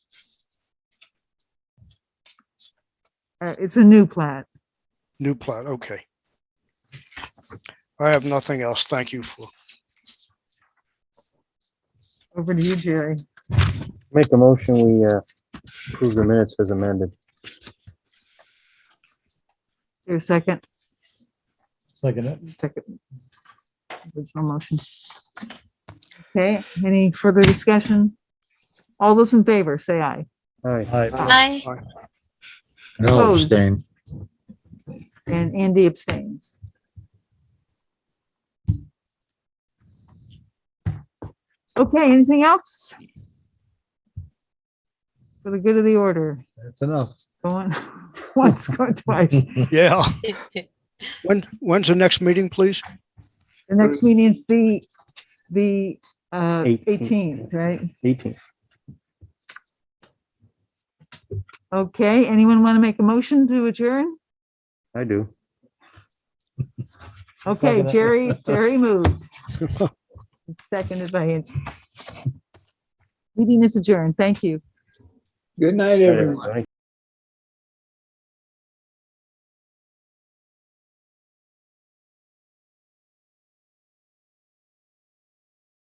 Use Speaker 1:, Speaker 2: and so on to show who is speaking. Speaker 1: Uh, it's a new plat.
Speaker 2: New plat, okay. I have nothing else. Thank you for,
Speaker 1: Over to you, Jerry.
Speaker 3: Make a motion, we uh, approve the minutes as amended.
Speaker 1: Your second,
Speaker 4: Second it.
Speaker 1: second. Original motion. Okay, any further discussion? All those in favor, say aye.
Speaker 3: All right,
Speaker 4: Aye.
Speaker 5: Aye.
Speaker 6: No,
Speaker 1: Opposed.
Speaker 6: abstain.
Speaker 1: And Andy abstains. Okay, anything else? For the good of the order,
Speaker 4: That's enough.
Speaker 1: going once, going twice. The
Speaker 2: yeah. When, when's the next meeting, please?
Speaker 1: next meeting is the, the uh,
Speaker 3: Eighteenth.
Speaker 1: 18th, right?
Speaker 3: 18.
Speaker 1: Okay, anyone want to make a motion to adjourn?
Speaker 3: I do.
Speaker 1: Okay,
Speaker 4: Second it.
Speaker 1: Jerry, Jerry moved. Seconded by Andy. Meeting is adjourned. Thank you.
Speaker 7: Good night, everyone.
Speaker 3: Thank